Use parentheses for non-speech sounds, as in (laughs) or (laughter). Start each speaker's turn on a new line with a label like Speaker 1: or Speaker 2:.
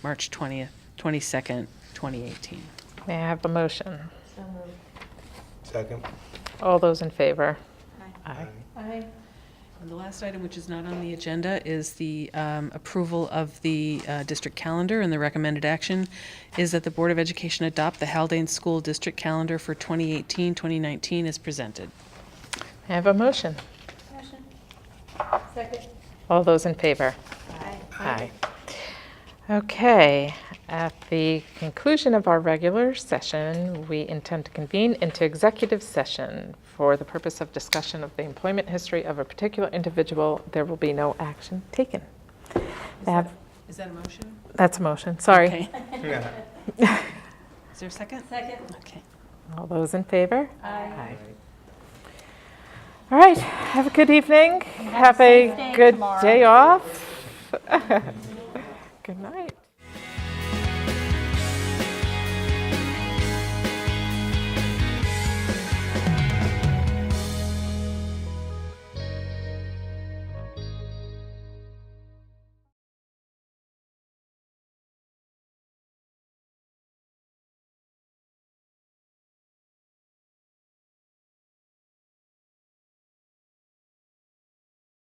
Speaker 1: March 20th, 22nd, 2018.
Speaker 2: May I have a motion?
Speaker 3: So moved.
Speaker 4: Second.
Speaker 2: All those in favor? Aye.
Speaker 3: Aye.
Speaker 1: And the last item, which is not on the agenda, is the um, approval of the uh, district calendar, and the recommended action is that the Board of Education adopt the Haldane School District Calendar for 2018, 2019 as presented.
Speaker 2: May I have a motion?
Speaker 3: Motion. Second.
Speaker 2: All those in favor?
Speaker 3: Aye.
Speaker 2: Aye. Okay, at the conclusion of our regular session, we intend to convene into executive session for the purpose of discussion of the employment history of a particular individual. There will be no action taken. May I have-
Speaker 1: Is that a motion?
Speaker 2: That's a motion, sorry.
Speaker 1: Okay. (laughs) Is there a second?
Speaker 3: Second.
Speaker 1: Okay.
Speaker 2: All those in favor?
Speaker 3: Aye.
Speaker 2: Aye. All right, have a good evening. Have a
Speaker 3: day
Speaker 2: good
Speaker 3: tomorrow.
Speaker 2: day off. (laughs) Good night.